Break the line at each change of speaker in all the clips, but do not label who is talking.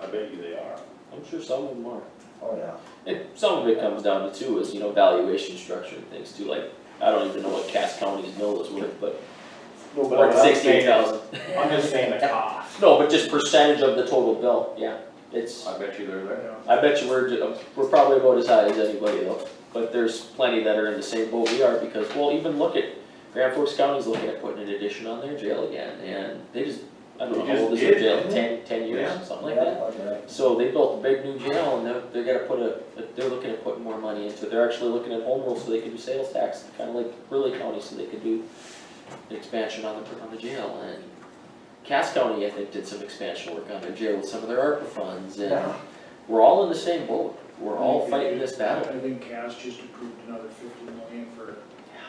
I bet you they are.
I'm sure some of them are.
Oh, yeah.
And some of it comes down to too is, you know, valuation structure and things too, like, I don't even know what Cass County's mill is worth, but
No, but
worth
I'm not
sixteen
saying,
thousand.
I'm just saying the cost.
No, but just percentage of the total bill, yeah, it's,
I bet you they're there.
I bet you we're, ju- we're probably about as high as anybody though. But there's plenty that are in the same boat we are, because, well, even look at, Grand Forks County's looking at putting an addition on their jail again, and they just, I don't know,
They
how
just
old is
did,
their jail,
didn't
ten, ten
Yeah.
years, something like
Yeah,
that?
okay.
So they built a big new jail and they're, they're gonna put a, they're looking at putting more money into it, they're actually looking at home rule so they can do sales tax, kinda like Ridley County, so they could do an expansion on the, on the jail and Cass County, I think, did some expansion work on their jail with some of their ARPA funds and
Yeah.
we're all in the same boat, we're
Mm-hmm.
all fighting this battle.
I think Cass just approved another fifty million for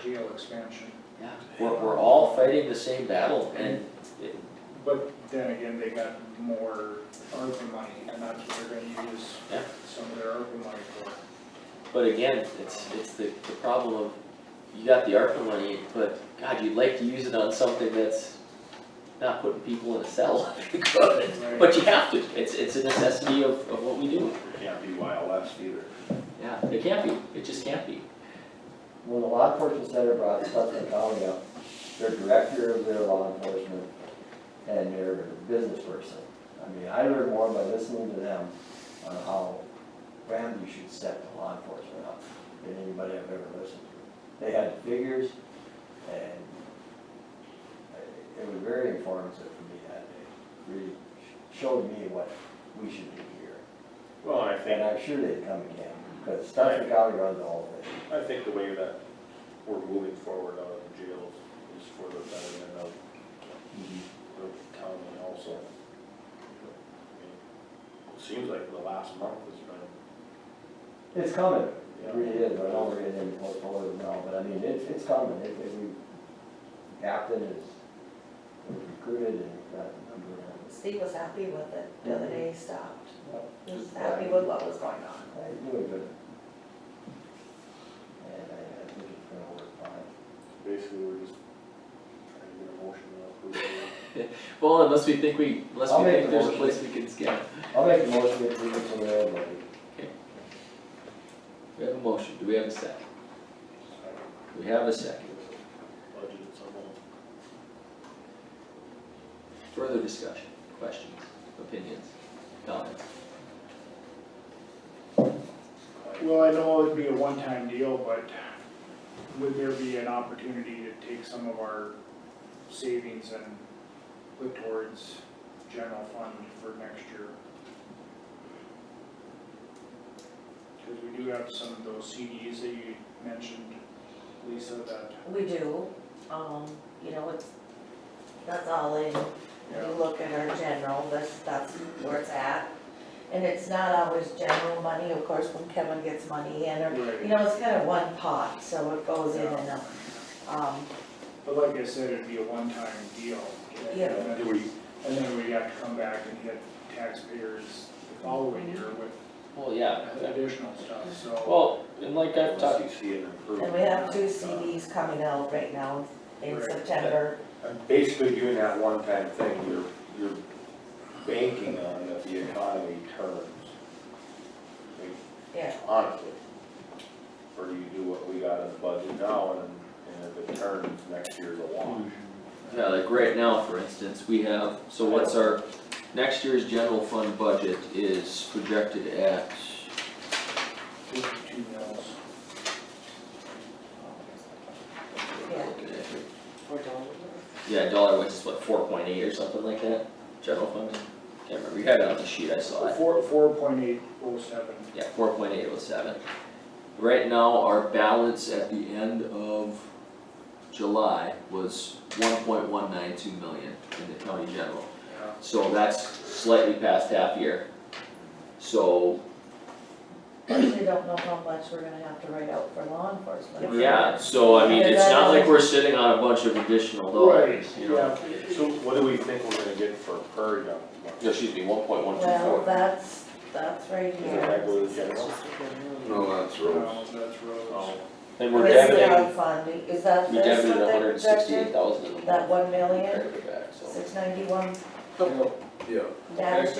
jail expansion,
Yeah. We're, we're all fighting the same battle and it-
but then again, they got more ARPA money, and that's what they're gonna use
Yeah.
some of their ARPA money for.
But again, it's, it's the, the problem of, you got the ARPA money, but God, you'd like to use it on something that's not putting people in a cell if you could.
Right.
But you have to, it's, it's a necessity of, of what we do,
Can't be YLS either.
yeah, it can't be, it just can't be.
When the law enforcement center brought Sutton County up, their director of their law enforcement and their business person. I mean, I learned more by listening to them on how Ramsey should set the law enforcement up than anybody I've ever listened to. They had figures and it was very informative for me that day. Really showed me what we should do here.
Well, I
And
think,
I'm sure they'd come again, because Sutton County runs the whole thing.
I think the way that we're moving forward out of the jails is for the betterment of Mm-hmm. the county also. I mean, It seems like the last month has been,
It's coming,
yeah.
it really is, I don't read any portfolio now, but I mean, it's, it's coming, it, it, we, captain is recruited and we've got a number of,
Steve was happy with it, the other day he stopped, he was
Just
happy
that.
with what was going on.
I do it good. And I, I think it's gonna work fine.
Basically, we're just trying to get a motion to approve it.
Well, unless we think we, unless
I'll
we
make
think
the
there's a
motion.
place we can skip.
I'll make the motion to approve it from the railroad.
We have a motion, do we have a second? We have a second,
Budget at some point.
further discussion, questions, opinions, comments?
Well, I know it'd be a one-time deal, but would there be an opportunity to take some of our savings and put towards general fund for next year? Because we do have some of those CDs that you mentioned, Lisa, that,
We do, um, you know, it's, that's all in,
Yeah.
you look at our general, that's, that's where it's at. And it's not always general money, of course, when Kevin gets money in, or, you
right,
know, it's kind of one pot, so it goes in and out. Um,
but like I said, it'd be a one-time deal.
Yeah.
And then-
Do we,
And then we have to come back and hit taxpayers the following year with
Well, yeah,
additional stuff, so.
well, and like I've talked,
unless you see an improvement.
and we have two CDs coming out right now in
Right.
September,
I'm Basically doing that one-time thing, you're, you're banking on that the economy turns. Like,
yeah.
Honestly. Or do you do what we got in the budget now and, and if it turns, next year's a wash.
Yeah, like right now, for instance, we have, so what's our, next year's general fund budget is projected at,
fifty-two mills.
Yeah.
yeah, dollar wise is what, four point eight or something like that, general fund? Can't remember, you had it on the sheet, I saw it,
Four, four point eight oh seven.
yeah, four point eight oh seven. Right now, our balance at the end of July was one point one nine two million in the county general. So that's slightly past half year. So
We don't know how much we're gonna have to write out for law enforcement.
Yeah, so I mean, it's not like we're sitting on a bunch of additional
Right,
dollars, you know?
yeah,
So what do we think we're gonna get for per young?
No, Excuse me, one point one two
Well,
four.
that's, that's right
Does that
here.
go to the general?
No, that's
no,
roads.
that's roads.
Oh,
And we're
What is the
debiting,
dog fund, is that
we
this
debited a
what they
hundred and sixty-eight
projected?
thousand in the
That
month
one million,
compared to back, so.
six ninety-one,
Yeah.
that is